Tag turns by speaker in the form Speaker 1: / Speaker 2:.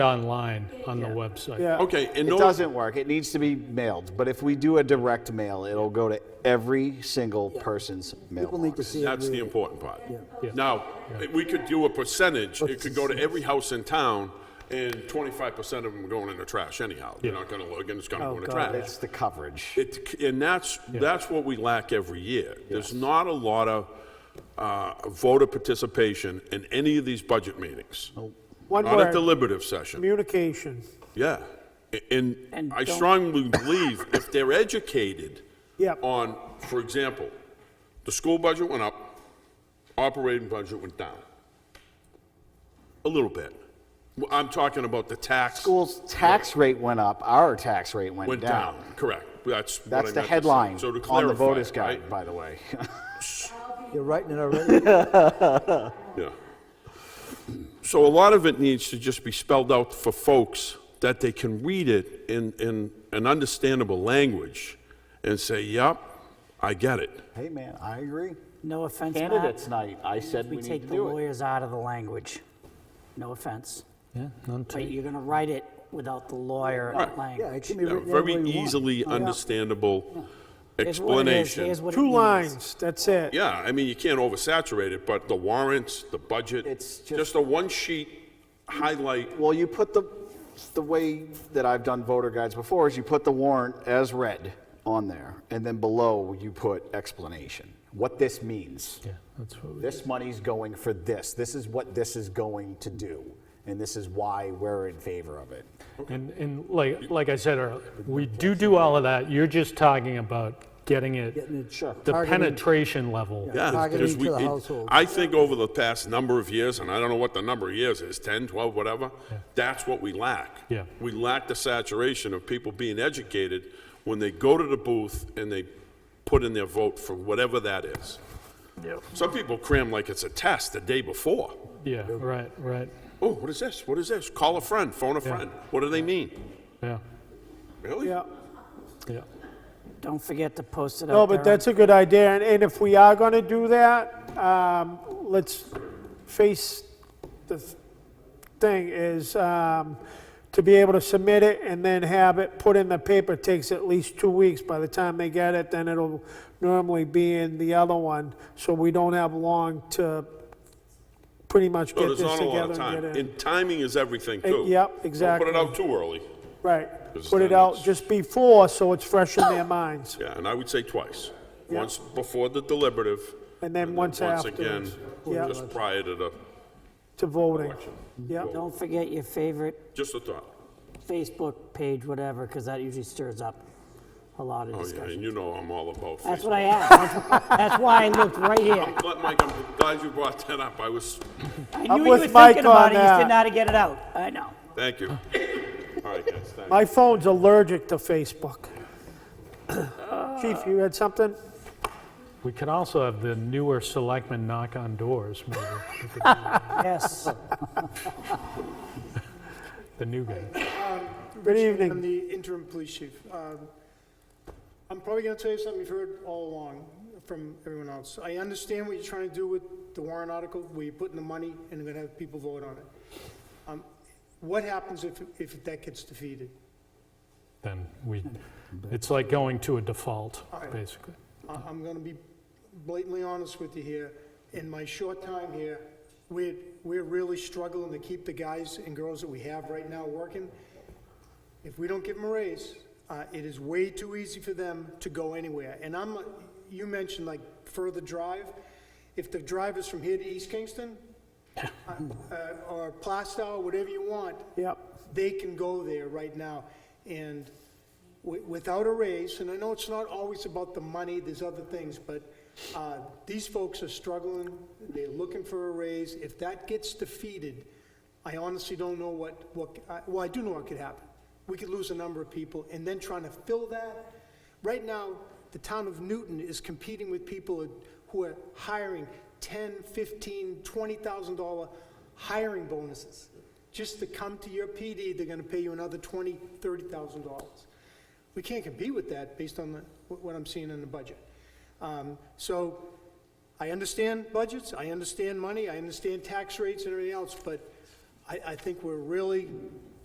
Speaker 1: online on the website.
Speaker 2: Yeah.
Speaker 3: Okay, and
Speaker 4: It
Speaker 3: no-
Speaker 4: doesn't work. It needs to be mailed. But if we do a direct mail, it'll go to every single person's
Speaker 2: People need to
Speaker 4: mailbox.
Speaker 2: see it.
Speaker 3: That's the
Speaker 2: real.
Speaker 3: important part.
Speaker 1: Yeah.
Speaker 3: Now, we could do a percentage, it could go to every house in town, and twenty-five percent of them are going in the trash anyhow. They're not gonna look, and it's gonna go in the trash.
Speaker 4: It's the coverage.
Speaker 3: It, and that's, that's what we lack every year. There's not a lot of, uh, voter participation in any of these budget meetings.
Speaker 5: One
Speaker 3: Not a
Speaker 5: word,
Speaker 3: deliberative session.
Speaker 5: communication.
Speaker 3: Yeah, A- and
Speaker 5: And
Speaker 3: I
Speaker 5: don't-
Speaker 3: strongly believe if they're educated
Speaker 5: Yep.
Speaker 3: on, for example, the school budget went up, operating budget went down. A little bit. Well, I'm talking about the tax.
Speaker 4: School's tax rate went up, our tax rate went
Speaker 3: Went
Speaker 4: down.
Speaker 3: down, correct. That's what I
Speaker 4: That's the
Speaker 3: meant to say.
Speaker 4: headline
Speaker 3: So to
Speaker 4: on the
Speaker 3: clarify,
Speaker 4: voters
Speaker 3: right?
Speaker 4: guide, by the way.
Speaker 2: You're writing it already.
Speaker 3: Yeah. So a lot of it needs to just be spelled out for folks that they can read it in, in an understandable language and say, yep, I get it.
Speaker 4: Hey, man, I agree.
Speaker 6: No offense, Matt.
Speaker 4: Candidates night, I said we
Speaker 6: We
Speaker 4: need
Speaker 6: take
Speaker 4: to
Speaker 6: the
Speaker 4: do it.
Speaker 6: lawyers out of the language. No offense.
Speaker 7: Yeah, none
Speaker 6: But you're going to write it without the lawyer
Speaker 3: Right.
Speaker 2: Yeah,
Speaker 6: language.
Speaker 2: it can be
Speaker 3: Yeah,
Speaker 2: written any
Speaker 3: Very
Speaker 2: way you want.
Speaker 3: easily understandable
Speaker 6: Here's what it is,
Speaker 3: explanation.
Speaker 6: here's what it
Speaker 5: Two
Speaker 6: means.
Speaker 5: lines, that's it.
Speaker 3: Yeah, I mean, you can't oversaturate it, but the warrants, the budget,
Speaker 4: It's just-
Speaker 3: just a one-sheet highlight.
Speaker 4: Well, you put the, the way that I've done voter guides before is you put the warrant as read on there, and then below you put explanation, what this means.
Speaker 7: Yeah, that's what we.
Speaker 4: This money's going for this. This is what this is going to do, and this is why we're in favor of it.
Speaker 1: And, and like, like I said earlier, we do do all of that. You're just talking about getting it,
Speaker 4: Sure.
Speaker 1: the
Speaker 2: Targeting-
Speaker 1: penetration level.
Speaker 3: Yeah,
Speaker 2: Targeting
Speaker 3: because we-
Speaker 2: to the
Speaker 3: it-
Speaker 2: household.
Speaker 3: I think over the past number of years, and I don't know what the number of years is, 10, 12, whatever, that's what we lack.
Speaker 1: Yeah.
Speaker 3: We lack the saturation of people being educated when they go to the booth and they put in their vote for whatever that is. Some people cram like it's a test the day before.
Speaker 1: Yeah, right, right,
Speaker 3: Oh, what is this? What is this? Call a friend, phone a friend. What do they mean?
Speaker 1: yeah,
Speaker 3: Really?
Speaker 5: Yeah.
Speaker 1: yeah.
Speaker 6: Don't forget to post it
Speaker 5: No,
Speaker 6: out
Speaker 5: but
Speaker 6: there.
Speaker 5: that's a good idea, and, and if we are gonna do that, um, let's face the th- thing is, um, to be able to submit it and then have it put in the paper takes at least two weeks. By the time they get it, then it'll normally be in the other one, so we don't have long to pretty much
Speaker 3: No,
Speaker 5: get this
Speaker 3: Oh, there's not a lot of
Speaker 5: together and
Speaker 3: time.
Speaker 5: get it.
Speaker 3: And timing is everything, too.
Speaker 5: yep,
Speaker 3: Don't
Speaker 5: exactly.
Speaker 3: put it out too early.
Speaker 5: Right,
Speaker 3: Because
Speaker 5: put it
Speaker 3: then
Speaker 5: out
Speaker 3: it's-
Speaker 5: just before, so it's fresh in their minds,
Speaker 3: Yeah, and I would say twice. Once before the deliberative.
Speaker 5: and then once
Speaker 3: Once again,
Speaker 5: afterwards. Yeah,
Speaker 3: just prior to the
Speaker 5: to voting,
Speaker 3: election.
Speaker 5: yeah.
Speaker 6: Don't forget your favorite
Speaker 3: Just a thought.
Speaker 6: Facebook page, whatever, because that usually stirs up a lot of
Speaker 3: Oh, yeah,
Speaker 6: discussion.
Speaker 3: and you know I'm all about Facebook.
Speaker 6: That's what I asked. That's- That's why I looked right here.
Speaker 3: I'm glad- Mike, I'm glad you brought that up. I was,
Speaker 6: I
Speaker 5: I'm
Speaker 6: knew you were
Speaker 5: with Mike
Speaker 6: thinking about
Speaker 5: on
Speaker 6: it, you just
Speaker 5: that.
Speaker 6: didn't know how to get it out. I know.
Speaker 3: thank you. All right, guys, thank you.
Speaker 5: My phone's allergic to Facebook. Chief, you had something?
Speaker 1: We could also have the newer selectmen knock on doors, maybe. We could-
Speaker 6: Yes.
Speaker 1: The new guy.
Speaker 5: Good
Speaker 8: Chief,
Speaker 5: evening.
Speaker 8: I'm the interim police chief. Um, I'm probably going to tell you something you've heard all along from everyone else. I understand what you're trying to do with the warrant article, where you're putting the money and you're going to have people vote on it. Um, What happens if, if that gets defeated?
Speaker 1: Then we, it's like going to a default, basically.
Speaker 8: I- I'm going to be blatantly honest with you here. In my short time here, we're, we're really struggling to keep the guys and girls that we have right now working. If we don't give them a raise, uh, it is way too easy for them to go anywhere. And I'm, you mentioned like further drive. If the drive is from here to East Kingston, uh, uh, or Plastow, whatever you want,
Speaker 5: Yep.
Speaker 8: they can go there right now. And wi- without a raise, and I know it's not always about the money, there's other things, but uh, these folks are struggling, they're looking for a raise. If that gets defeated, I honestly don't know what, what, I- well, I do know what could happen. We could lose a number of people, and then trying to fill that. Right now, the town of Newton is competing with people who are hiring 10, 15, $20,000 hiring bonuses. Just to come to your PD, they're gonna pay you another $20,000, $30,000. We can't compete with that based on the- what what I'm seeing in the budget. Um, So I understand budgets, I understand money, I understand tax rates and everything else, but I, I think we're really